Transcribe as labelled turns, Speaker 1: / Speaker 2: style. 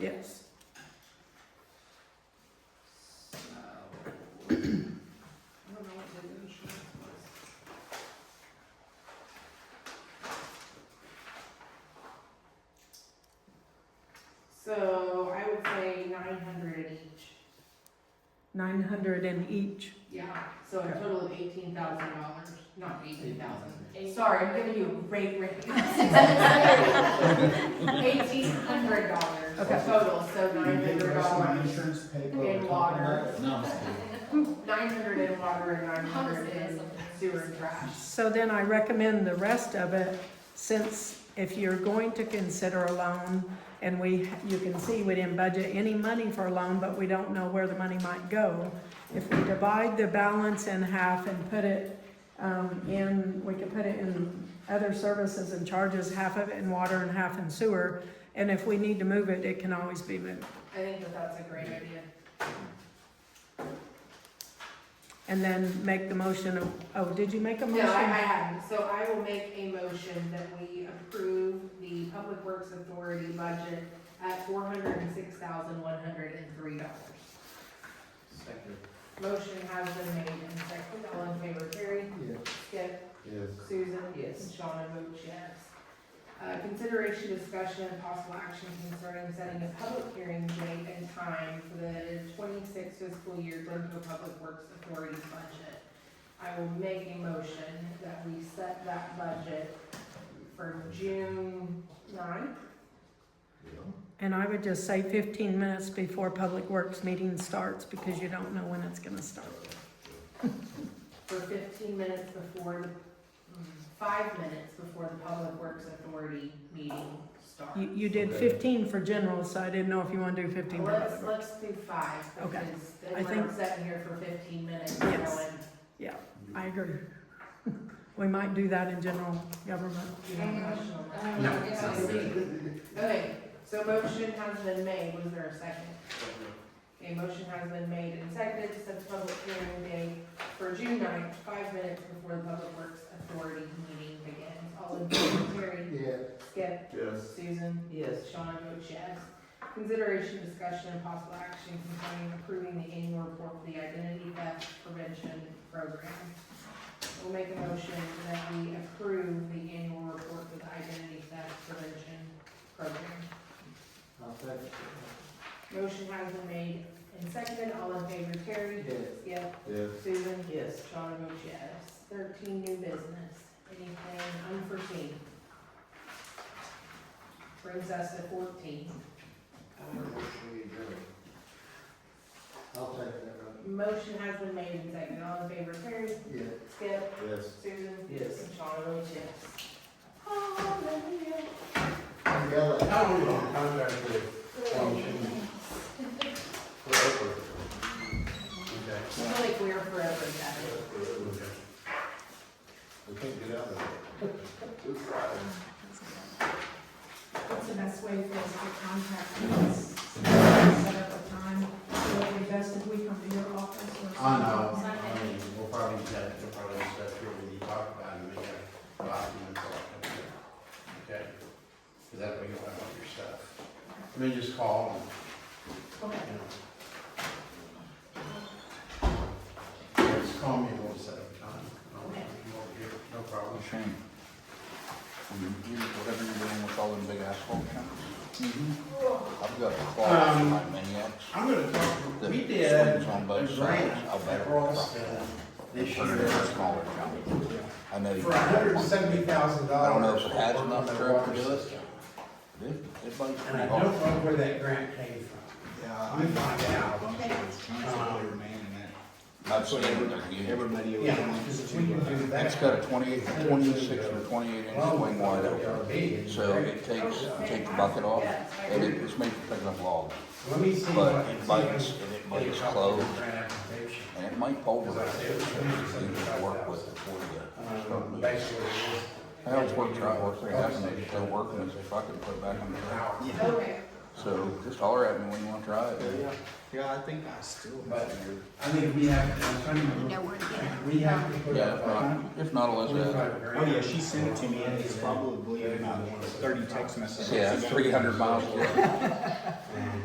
Speaker 1: Yes.
Speaker 2: So, I don't know what the insurance was. So I would say nine hundred at each.
Speaker 1: Nine hundred in each.
Speaker 2: Yeah. So a total of eighteen thousand dollars, not eighteen thousand.
Speaker 3: Eight-
Speaker 2: Sorry, I'm giving you a great rate. Eighteen hundred dollars
Speaker 1: Okay.
Speaker 2: total, so
Speaker 4: You
Speaker 2: nine
Speaker 4: pay the
Speaker 2: hundred
Speaker 4: rest of my
Speaker 2: dollars.
Speaker 4: insurance, pay for
Speaker 2: In
Speaker 4: the top
Speaker 2: water.
Speaker 4: of that.
Speaker 5: No, I'm just kidding.
Speaker 2: Nine hundred in water and nine hundred
Speaker 3: Homestead,
Speaker 2: in
Speaker 3: something.
Speaker 2: sewer and trash.
Speaker 1: So then I recommend the rest of it, since if you're going to consider a loan, and we, you can see we didn't budget any money for a loan, but we don't know where the money might go. If we divide the balance in half and put it, um, in, we could put it in other services and charges, half of it in water and half in sewer. And if we need to move it, it can always be moved.
Speaker 2: I think that that's a great idea.
Speaker 1: And then make the motion of, oh, did you make a
Speaker 2: No, I,
Speaker 1: motion?
Speaker 2: I hadn't, so I will make a motion that we approve the Public Works Authority budget at four hundred and six thousand one hundred and three dollars.
Speaker 5: Second.
Speaker 2: Motion has been made and seconded, all in favor, Terry?
Speaker 4: Yeah.
Speaker 2: Skip?
Speaker 5: Yes.
Speaker 2: Susan? Yes. And Shawna votes yes. Uh, consideration, discussion, and possible action concerning setting a public hearing date and time for the twenty-sixth fiscal year Glencoe Public Works Authority budget. I will make a motion that we set that budget for June ninth.
Speaker 1: And I would just say fifteen minutes before Public Works meeting starts, because you don't know when it's gonna start.
Speaker 2: for fifteen minutes before, the- mm, five minutes before the Public Works Authority meeting starts.
Speaker 1: You, you did
Speaker 5: Okay.
Speaker 1: fifteen for general, so I didn't know if you wanna do fifteen for
Speaker 2: Let's,
Speaker 1: Public Works.
Speaker 2: let's do five,
Speaker 1: Okay.
Speaker 2: because
Speaker 1: I
Speaker 2: then we're
Speaker 1: think-
Speaker 2: sitting here for fifteen minutes going,
Speaker 1: Yes. I agree. We might do that in general government.
Speaker 2: you know, national.
Speaker 3: I don't
Speaker 5: No.
Speaker 3: know, it's all good.
Speaker 2: Okay, so motion has been made, was there a second? Okay, motion has been made and seconded to set the public hearing day for June 9th, five minutes before the Public Works Authority meeting begins. All in favor, Terry?
Speaker 4: Yeah,
Speaker 2: Skip?
Speaker 5: Yes.
Speaker 2: Susan?
Speaker 3: Yes.
Speaker 2: Sean votes yes. Consideration, discussion, and possible action concerning approving the annual report for the identity theft prevention program. We'll make a motion that we approve the annual report for the identity theft prevention program.
Speaker 4: I'll take it.
Speaker 2: Motion has been made and seconded. All in favor, Terry?
Speaker 4: Yeah.
Speaker 2: Skip?
Speaker 5: Yes.
Speaker 2: Susan?
Speaker 3: Yes.
Speaker 2: Sean votes yes. Thirteen, new business. Anything unforeseen? Brings us to fourteen.
Speaker 4: I'll take that one.
Speaker 2: Motion has been made and seconded. All in favor, Terry?
Speaker 4: Yeah.
Speaker 2: Skip?
Speaker 5: Yes.
Speaker 2: Susan?
Speaker 3: Yes.
Speaker 2: And Sean votes yes. Hallelujah.
Speaker 4: And yell at-
Speaker 5: How are we on contract with? Forever.
Speaker 2: I feel like we're forever in that.
Speaker 5: Okay. We can't get out of it. We're trying.
Speaker 6: What's the best way for us to contact us? Set up a time, so it would be best if we come to your office or something.
Speaker 7: I know, I mean, we'll probably just have, we'll probably just have to really talk about it, and make a document for it. Okay? Because that way you'll have all your stuff. I mean, just call and, you know. Just call me and we'll set up a time. I'll be over here, no problem.
Speaker 8: Shame. Whatever you're doing with all them big asphalt counts,
Speaker 7: Mm-hmm.
Speaker 8: I've got a clause in my maniacs.
Speaker 7: I'm gonna talk, Um, we
Speaker 8: that
Speaker 7: did
Speaker 8: swings on
Speaker 7: a
Speaker 8: both sides.
Speaker 7: grant
Speaker 8: I'll bet.
Speaker 7: at Rossville this
Speaker 8: Turn it into a
Speaker 7: year
Speaker 8: smaller county. I know you.
Speaker 7: for hundred and seventy thousand
Speaker 8: I
Speaker 7: dollars.
Speaker 8: don't know if it has enough truck to do it. Dude, Everybody's
Speaker 7: And I
Speaker 8: pretty
Speaker 7: don't
Speaker 8: hard.
Speaker 7: know where that grant came from.
Speaker 4: Yeah,
Speaker 7: I'm finding out.
Speaker 8: I've seen it.
Speaker 7: Everybody. Yeah, because we can do that.
Speaker 8: It's got a twenty-eight, twenty-six or twenty-eight inch
Speaker 7: Well,
Speaker 8: swing wide open.
Speaker 7: LRB.
Speaker 8: So it takes, you take the bucket off and it just makes you pick up logs.
Speaker 7: Let me see what.
Speaker 8: But it bites and it bites close.
Speaker 7: Grant application.
Speaker 8: And it might pulverize it, you need to work with it before you start
Speaker 7: Um,
Speaker 8: moving.
Speaker 7: basically. it
Speaker 8: I always work, try to work, they have to, they still working, they say, if I could put it back on the
Speaker 7: was
Speaker 8: ground.
Speaker 7: out.
Speaker 2: Okay.
Speaker 8: So just holler at me when you want to try it.
Speaker 9: Yeah, yeah, I think I still
Speaker 7: But-
Speaker 9: have your.
Speaker 7: I think we have, I'm trying to
Speaker 3: You
Speaker 7: remember,
Speaker 3: know where to get it.
Speaker 7: we have to put
Speaker 8: Yeah,
Speaker 7: up
Speaker 8: if
Speaker 7: a
Speaker 8: not, if not, I'll let that.
Speaker 7: twenty-five grand.
Speaker 4: Oh, yeah, she sent it to me, and it's probably about thirty text messages.
Speaker 8: Yeah, three hundred miles away.
Speaker 7: Um,